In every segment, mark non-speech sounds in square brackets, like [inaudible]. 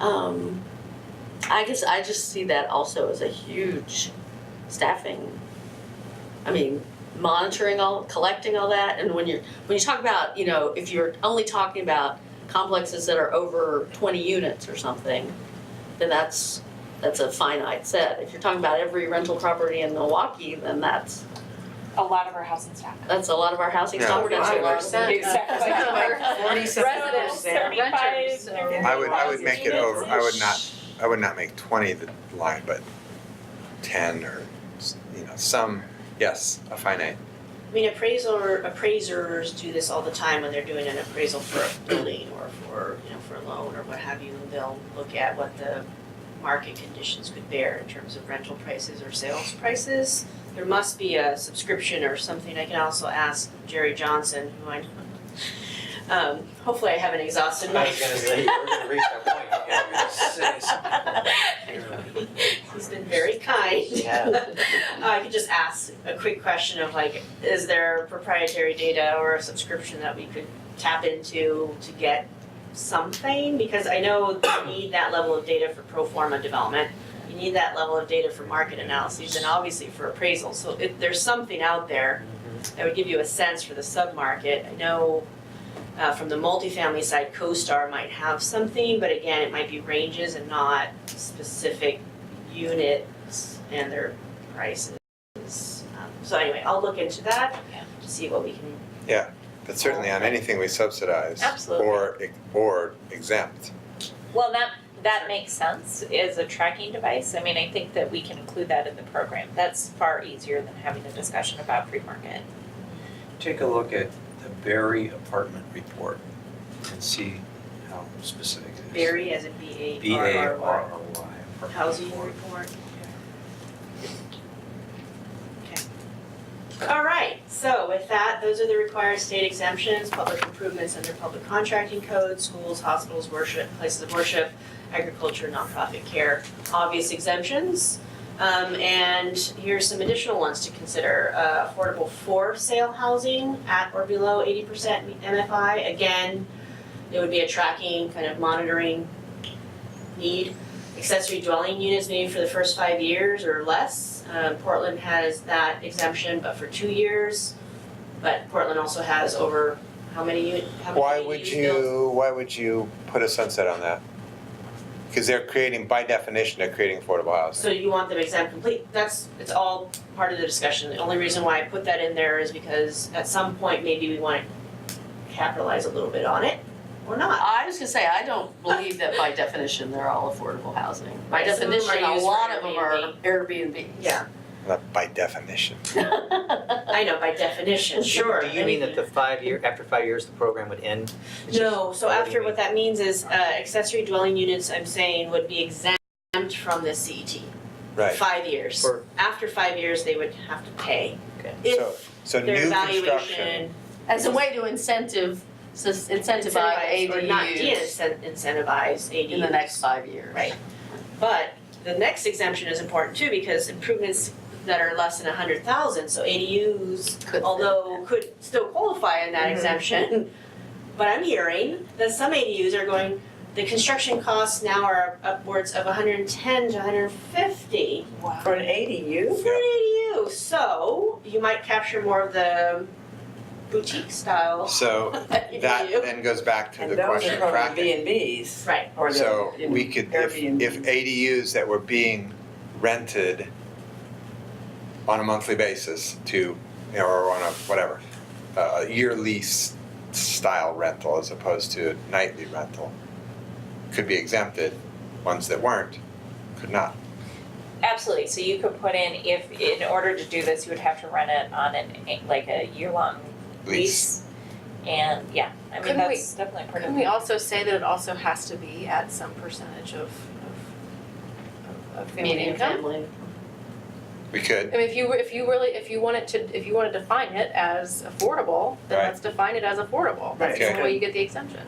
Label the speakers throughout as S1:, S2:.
S1: Um, I guess I just see that also as a huge staffing. I mean, monitoring all, collecting all that, and when you're, when you talk about, you know, if you're only talking about complexes that are over twenty units or something, then that's, that's a finite set. If you're talking about every rental property in Milwaukee, then that's,
S2: A lot of our housing staff.
S1: that's a lot of our housing
S3: Yeah.
S1: stock, that's a
S4: Wow.
S1: lot of.
S4: Residents there. Renters there.
S3: I would, I would make it over, I would not, I would not make twenty the line, but ten or, s- you know, some, yes, a finite.
S5: I mean, appraiser, appraisers do this all the time when they're doing an appraisal for a building or for, you know, for a loan or what have you. and They'll look at what the market conditions could bear in terms of rental prices or sales prices. There must be a subscription or something. I can also ask Jerry Johnson, who I, um, hopefully I haven't exhausted my.
S6: I was gonna
S5: [laughs]
S6: say, we're gonna reach that point, yeah, you're
S5: He's been very kind.
S6: Yeah.
S5: [laughs] I could just ask a quick question of like, is there proprietary data or a subscription that we could tap into to get something? Because I know you need that level of data for pro forma development. You need that level of data for market analyses and obviously for appraisal. So if there's something out there that would give you a sense for the submarket, I know uh, from the multifamily side, CoStar might have something, but again, it might be ranges and not specific units and their prices. Um, So anyway, I'll look into that to see what we can,
S3: But certainly on anything we subsidize
S5: Absolutely.
S3: or, ex- or exempt.
S4: Well, that, that makes sense as a tracking device. I mean, I think that we can include that in the program. That's far easier than having a discussion about free market.
S6: Take a look at the Barry apartment report and see how specific it is.
S5: vary as a B
S6: B
S5: A
S6: A R
S5: R R
S6: R
S5: Y.
S6: Y apartment
S5: Housing
S6: report.
S5: report. All right, so with that, those are the required state exemptions, public improvements under public contracting code, schools, hospitals, worship, places of worship, agriculture, nonprofit care, obvious exemptions. Um, and here's some additional ones to consider, uh, affordable for sale housing at or below eighty percent MFI, again, it would be a tracking, kind of monitoring need accessory dwelling units maybe for the first five years or less. Um, Portland has that exemption, but for two years. But Portland also has over how many unit, how many
S3: Why would
S5: ADUs built?
S3: you, why would you put a sunset on that? Because they're creating, by definition, they're creating affordable housing.
S5: So you want them exempt complete, that's, it's all part of the discussion. The only reason why I put that in there is because at some point, maybe we want to capitalize a little bit on it or not.
S1: I was gonna say, I don't believe that by definition, they're all affordable housing. By
S5: Right, some of them
S1: definition,
S5: are
S1: a
S5: used for
S1: lot of them are Airbnb.
S5: Yeah,
S3: Not by definition.
S1: [laughs]
S5: I know by definition, sure.
S7: Do you mean that the five year, after five years, the program would end? It's just-
S5: No, so
S7: What do you
S5: after
S7: mean?
S5: what that means is uh accessory dwelling units, I'm saying, would be exempt from the CET.
S3: Right.
S5: Five years.
S7: For-
S5: After five years, they would have to pay.
S7: Okay.
S3: So,
S5: If
S3: so new
S5: their
S3: construction,
S5: valuation
S1: As a way to incentive, sus- incentivize
S5: incentivized or not
S1: ADUs
S5: de-incentivize ADUs.
S1: in the next five years.
S5: Right. But the next exemption is important too, because improvements that are less than a hundred thousand, so ADUs,
S1: Could-
S5: although could still qualify in that
S1: Mhm.
S5: exemption. But I'm hearing that some ADUs are going, the construction costs now are upwards of hundred and ten to hundred and fifty
S2: Wow.
S4: For an ADU?
S5: for an ADU, so you might capture more of the boutique style
S3: so
S5: [laughs] ADU.
S3: that then goes back to
S8: And
S3: the
S8: those
S3: question
S8: are
S3: of
S8: from the
S3: fracking.
S8: B and Bs
S5: Right,
S8: or the.
S3: So
S8: in-
S3: we could, if,
S8: Airbnb.
S3: if ADUs that were being rented on a monthly basis to, you know, or on a, whatever, uh, year lease style rental as opposed to nightly rental, could be exempted, ones that weren't, could not.
S4: Absolutely, so you could put in, if, in order to do this, you would have to run it on an, like a year-long
S3: Lease.
S4: lease. And, yeah, I mean,
S2: Couldn't we-
S4: that's definitely part of.
S2: Couldn't we also say that it also has to be at some percentage of, of, of family
S1: Median
S2: income?
S1: family.
S3: We could,
S2: I mean, if you, were- if you really, if you wanted to, if you want to define it as affordable, then
S3: Right.
S2: let's define it as affordable. That's the
S3: Okay.
S2: only way you get the exemption.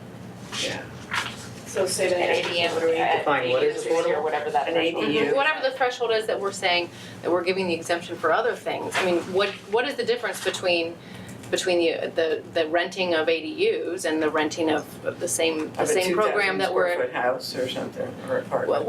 S8: So say
S4: An ADM, what are we,
S7: Define what is affordable?
S4: or whatever that
S8: An
S4: threshold is.
S8: ADU.
S2: Whatever the threshold is that we're saying that we're giving the exemption for other things, I mean, what, what is the difference between between the, the, the renting of ADUs and the renting of of the same, the
S8: Of a
S2: same program
S8: 2,000
S2: that we're
S8: square foot house or something, or apartment.
S2: Well,